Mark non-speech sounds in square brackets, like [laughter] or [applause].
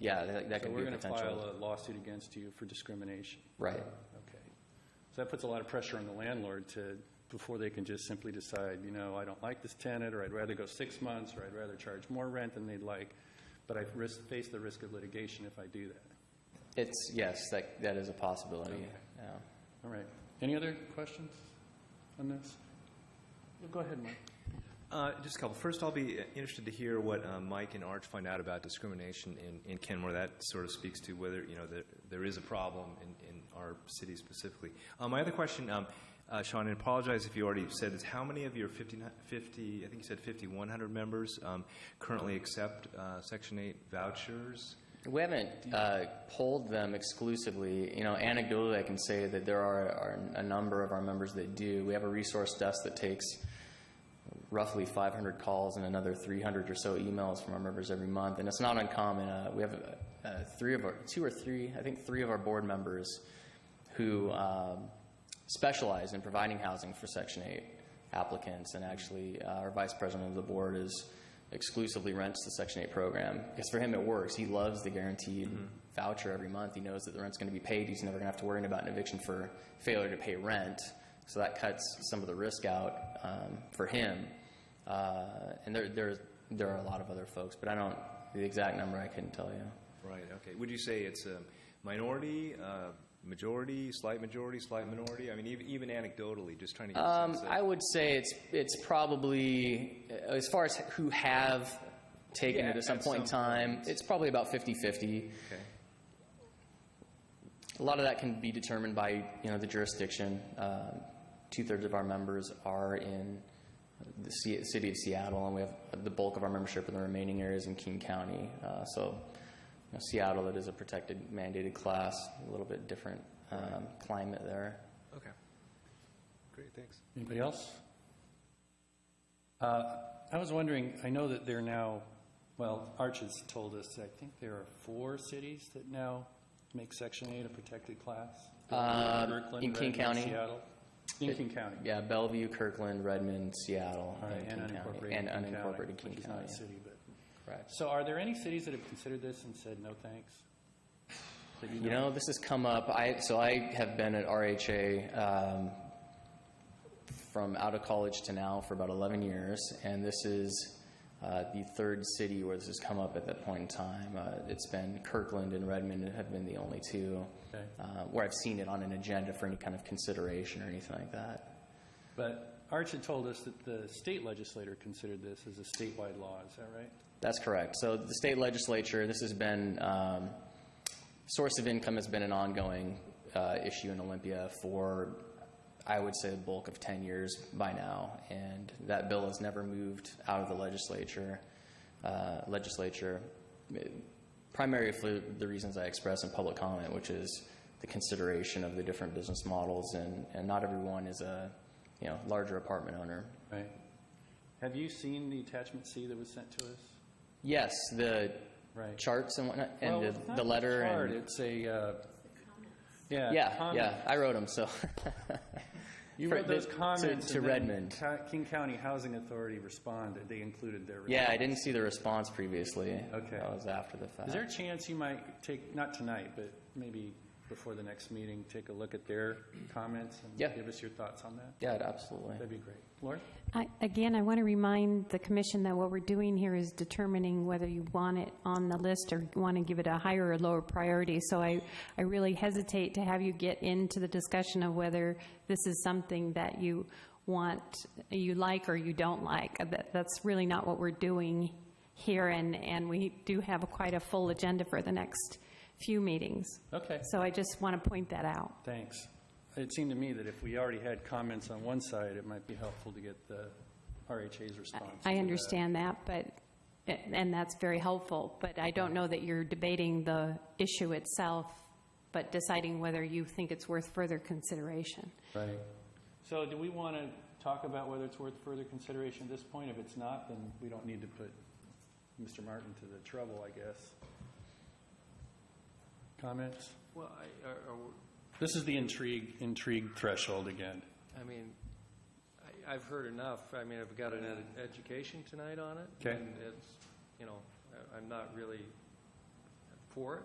Yeah, that that So could we're be a going to file potential, a lawsuit against you for discrimination. right. Okay. So that puts a lot of pressure on the landlord to, before they can just simply decide, you know, I don't like this tenant, or I'd rather go six months, or I'd rather charge more rent than they'd like, but I risk, face the risk of litigation if I do that. It's, yes, that, that is a possibility, yeah. All right. Any other questions on this? Go ahead, Mike. Uh, Just a couple. First, I'll be uh, interested to hear what uh, Mike and Arch find out about discrimination in- in Kenmore. That sort of speaks to whether, you know, there- there is a problem in in our city specifically. Uh, My other question, um, uh, Sean, and apologize if you already said this, how many of your 50, I think you said 5,100 members um, currently accept uh, Section 8 vouchers? We haven't uh, polled them exclusively. You know, anecdotally, I can say that there are, are a number of our members that do. We have a resource desk that takes roughly 500 calls and another 300 or so emails from our members every month, and it's not uncommon. Uh, we have uh, uh, three of our, two or three, I think three of our board members who um, specialize in providing housing for Section 8 applicants, and actually, uh, our vice president of the board is exclusively rents the Section 8 program, because for him it works. He loves the guaranteed voucher every month. He knows that the rent's going to be paid. He's never going to have to worry about an eviction for failure to pay rent, so that cuts some of the risk out um, for him. Uh, And there, there's- there are a lot of other folks, but I don't, the exact number I couldn't tell you. Right, okay. Would you say it's a minority, uh, majority, slight majority, slight minority? I mean, even- even anecdotally, just trying to get a Um, sense of... I would say it's, it's probably, as far as who have taken Yeah, it at some at point in some time, point. it's probably about 50/50. Okay. A lot of that can be determined by, you know, the jurisdiction. Um, Two-thirds of our members are in the ci- city of Seattle, and we have the bulk of our membership in the remaining areas in King County. Uh, So, you know, Seattle, it is a protected mandated class, a little bit different um, climate there. Okay. Great, thanks. Anybody else? Uh, I was wondering, I know that there are now, well, Arch has told us, I think there are four cities that now make Section 8 a protected class. Uh, Kirkland, in King Redmond, County? Seattle. In King County. Yeah, Bellevue, Kirkland, Redmond, Seattle, All right, and King County. And unincorporated King Which is not County, a city, but, correct. so are there any cities that have considered this and said, no, thanks? That You know, this has come up, I, so I have been at RHA um, from out of college to now for about 11 years, and this is uh, the third city where this has come up at that point in time. Uh, It's been Kirkland and Redmond have been the only two Okay. uh, where I've seen it on an agenda for any kind of consideration or anything like that. But Arch had told us that the state legislator considered this as a statewide law, is that right? That's correct. So the state legislature, this has been, um, source of income has been an ongoing uh, issue in Olympia for, I would say, the bulk of 10 years by now, and that bill has never moved out of the legislature, uh, legislature, primarily for the reasons I expressed in public comment, which is the consideration of the different business models, and, and not everyone is a, you know, larger apartment owner. Right. Have you seen the attachment C that was sent to us? Yes, the Right. charts and whatnot, and Well, the- it's not the a letter chart, and, It's a, uh, yeah. yeah, comment. yeah, I wrote them, so. [laughs] You For- wrote those to- comments. To and then Redmond. Co- King County Housing Authority responded, they included their. Yeah, I response. didn't see the response previously. Okay. That was after the fact. Is there a chance you might take, not tonight, but maybe before the next meeting, take a look at their comments? Yeah. And give us your thoughts on that? Yeah, absolutely. That'd be great. Laura? I- Again, I want to remind the commission that what we're doing here is determining whether you want it on the list or want to give it a higher or lower priority. So I, I really hesitate to have you get into the discussion of whether this is something that you want, you like or you don't like. Uh, That- That's really not what we're doing here, and, and we do have quite a full agenda for the next few meetings. Okay. So I just want to point that out. Thanks. It seemed to me that if we already had comments on one side, it might be helpful to get the RHA's response. to I that. understand that, but, and that's very helpful, but I don't know that you're debating the issue itself, but deciding whether you think it's worth further consideration. Right. So do we want to talk about whether it's worth further consideration at this point? If it's not, then we don't need to put Mr. Martin to the trouble, I guess. Comments? Well, I, are- are- This is the intrigue, intrigue threshold again. I mean, I, I've heard enough. I mean, I've got an ed- education tonight on it. Okay. And it's, you know, I- I'm not really for it.